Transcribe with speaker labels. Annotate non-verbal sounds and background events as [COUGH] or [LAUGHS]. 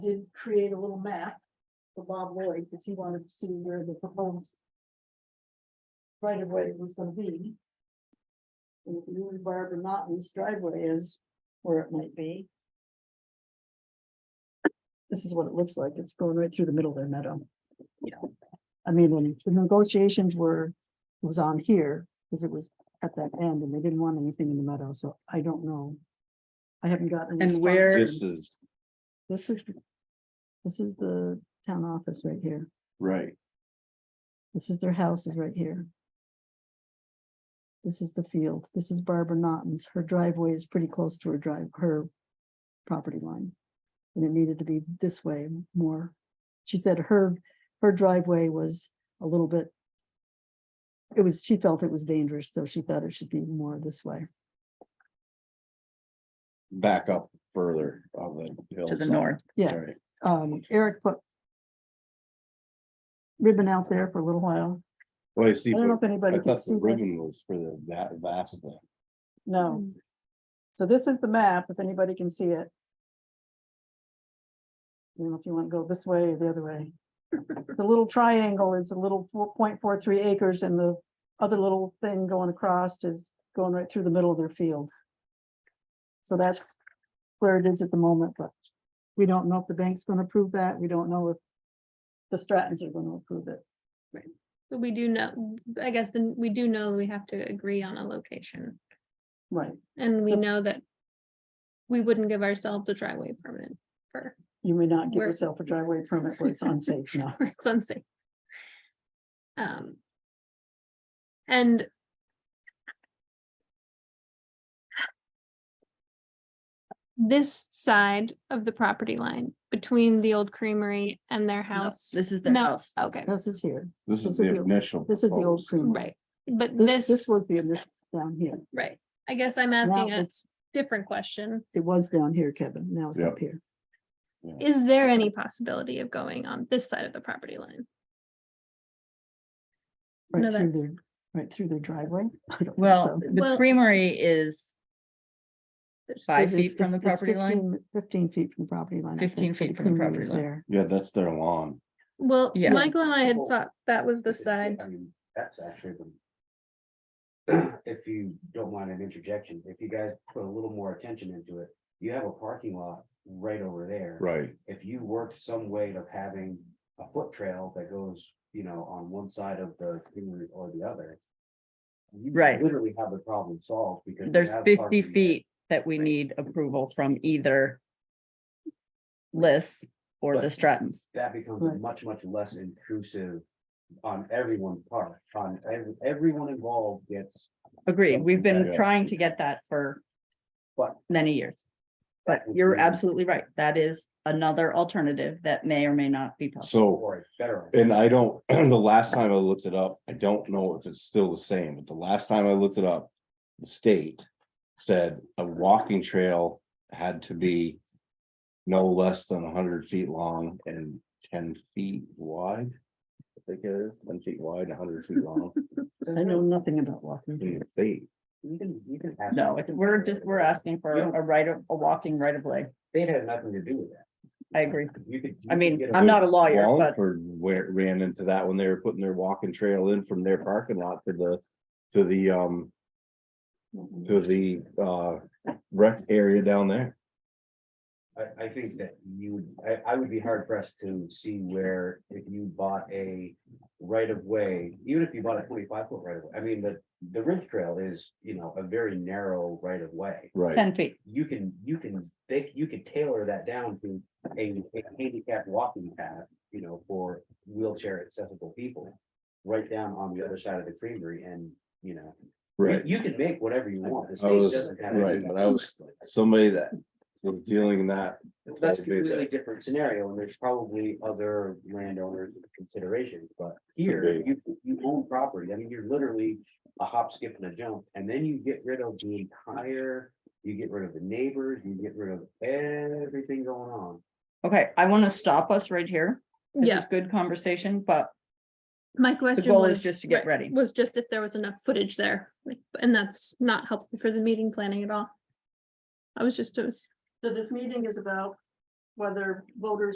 Speaker 1: did create a little map for Bob Lloyd, because he wanted to see where the proposed right of way was gonna be. And if you and Barbara Martin's driveway is where it might be. This is what it looks like. It's going right through the middle of their meadow. Yeah. I mean, when the negotiations were, it was on here, because it was at that end, and they didn't want anything in the meadow, so I don't know. I haven't gotten. a
Speaker 2: And
Speaker 1: response
Speaker 2: where-
Speaker 1: from-
Speaker 3: This is,
Speaker 1: this is, this is the town office right here.
Speaker 3: right,
Speaker 1: This is their house is right here. This is the field. This is Barbara Naughton's. Her driveway is pretty close to her drive, her property line. And it needed to be this way more. She said her, her driveway was a little bit. It was, she felt it was dangerous, so she thought it should be more this way.
Speaker 3: back up further of the hill.
Speaker 2: to the north.
Speaker 1: Yeah. Um, Eric put ribbon out there for a little while.
Speaker 3: Well, you see,
Speaker 1: I don't know if
Speaker 3: but
Speaker 1: anybody
Speaker 3: I
Speaker 1: can
Speaker 3: thought
Speaker 1: see
Speaker 3: the
Speaker 1: this.
Speaker 3: ribbon was for the, that vast thing.
Speaker 1: No. So this is the map, if anybody can see it. You know, if you want to go this way or the other way. The little triangle is a little four point four three acres and the other little thing going across is going right through the middle of their field. So that's where it is at the moment, but we don't know if the bank's going to approve that. We don't know if the Strattons are going to approve it.
Speaker 4: But we do know, I guess then we do know we have to agree on a location
Speaker 1: Right.
Speaker 4: and we
Speaker 1: Yep.
Speaker 4: know that. We wouldn't give ourselves a driveway permit [LAUGHS] for,
Speaker 1: You may not give
Speaker 4: Where-
Speaker 1: yourself a driveway permit where it's unsafe now.
Speaker 4: for it's unsafe. Um. And. This side of the property line between the old creamery and their
Speaker 2: No,
Speaker 4: house.
Speaker 2: This is their
Speaker 4: No,
Speaker 2: house.
Speaker 4: okay,
Speaker 1: This is here.
Speaker 3: This
Speaker 1: This
Speaker 3: is
Speaker 1: is
Speaker 3: the
Speaker 1: the-
Speaker 3: initial.
Speaker 1: This is the old
Speaker 3: proposed.
Speaker 1: creamery.
Speaker 4: right, but
Speaker 1: This, this
Speaker 4: this,
Speaker 1: was the initial down here.
Speaker 4: right, I guess I'm
Speaker 1: Now
Speaker 4: asking a
Speaker 1: it's,
Speaker 4: different question.
Speaker 1: it was down here, Kevin. Now it's up
Speaker 3: Yep.
Speaker 1: here.
Speaker 4: Is there any possibility of going on this side of the property line? No,
Speaker 1: Right through
Speaker 4: that's-
Speaker 1: their, right through their driveway. I don't think
Speaker 2: Well,
Speaker 1: so.
Speaker 2: the
Speaker 4: Well-
Speaker 2: creamery is
Speaker 4: There's-
Speaker 2: five
Speaker 1: It
Speaker 2: feet
Speaker 1: is-
Speaker 2: from the
Speaker 1: it's- it's
Speaker 2: property line.
Speaker 1: 15 Fifteen feet from the property line. I
Speaker 2: 15
Speaker 1: think, so
Speaker 2: feet from the
Speaker 1: creamery is
Speaker 2: property
Speaker 1: there.
Speaker 3: Yeah, that's their lawn.
Speaker 4: Well,
Speaker 2: Yeah.
Speaker 4: Michael and I had
Speaker 5: Well-
Speaker 4: thought that was the side.
Speaker 5: I mean, That's actually the. [CLEARS THROAT] If you don't mind an interjection, if you guys put a little more attention into it, you have a parking lot right over there.
Speaker 3: Right.
Speaker 5: If you worked some way of having a foot trail that goes, you know, on one side of the greenery or the other. you
Speaker 2: Right.
Speaker 5: Literally have the problem solved because. you
Speaker 2: There's
Speaker 5: have
Speaker 2: fifty
Speaker 5: parking there.
Speaker 2: feet that we need approval from either Liz or the
Speaker 5: Right.
Speaker 2: Strattons.
Speaker 5: That becomes
Speaker 1: Right.
Speaker 5: a much, much less intrusive on everyone's part, on every, everyone involved gets,
Speaker 2: Agreed. We've been
Speaker 3: Yeah.
Speaker 2: trying to get that for
Speaker 5: but.
Speaker 2: many years. But you're absolutely right. That is another alternative that may or may not be possible.
Speaker 3: So,
Speaker 5: Or better.
Speaker 3: and I don't, [CLEARS THROAT] the last time I looked it up, I don't know if it's still the same, but the last time I looked it up, the state said a walking trail had to be no less than hundred feet long and ten feet wide. I think it is, ten feet wide, hundred feet long
Speaker 1: I know nothing about walking.
Speaker 3: in the state.
Speaker 5: You can, you can. have-
Speaker 2: No, it's- we're just, we're asking for
Speaker 5: You don't-
Speaker 2: a right of, a walking right of way.
Speaker 5: They had nothing to do with that.
Speaker 2: I agree.
Speaker 5: You could. you
Speaker 2: I
Speaker 5: could
Speaker 2: mean,
Speaker 5: get away
Speaker 2: I'm not a lawyer, Oh, but
Speaker 3: Wallingford where ran into that when they were putting their walking trail in from their parking lot to the, to the, um, to the, uh, rec area down there.
Speaker 5: with- I, I think that you, would. I, I would be hard pressed to see where if you bought a right of way, even if you bought a twenty-five foot right of way, I mean, the, the ridge trail is, you know, a very narrow right of way.
Speaker 3: Right,
Speaker 2: ten feet.
Speaker 5: You can, you can, they, you could tailor that down to a a handicapped walking path, you know, for wheelchair accessible people. Right down on the other side of the creamery and, you know,
Speaker 3: right.
Speaker 5: You can make whatever you want. The
Speaker 3: I
Speaker 5: state
Speaker 3: was-
Speaker 5: doesn't have
Speaker 3: right,
Speaker 5: any-
Speaker 3: but I was- Somebody that was dealing in that,
Speaker 5: That's a completely different scenario and there's probably other landowners considerations, but here,
Speaker 3: Okay.
Speaker 5: you, you own property. I mean, you're literally a hop, skip and a jump. And then you get rid of the entire, you get rid of the neighbors, you get rid of everything going on.
Speaker 2: Okay, I want to stop us right here. This
Speaker 4: Yeah,
Speaker 2: is good conversation, but
Speaker 4: my question
Speaker 2: goal is
Speaker 4: was.
Speaker 2: just to get
Speaker 4: right,
Speaker 2: ready.
Speaker 4: Was just if there was enough footage there, like, and that's not helpful for the meeting planning at all. I was just, it was
Speaker 1: So this meeting is about whether voters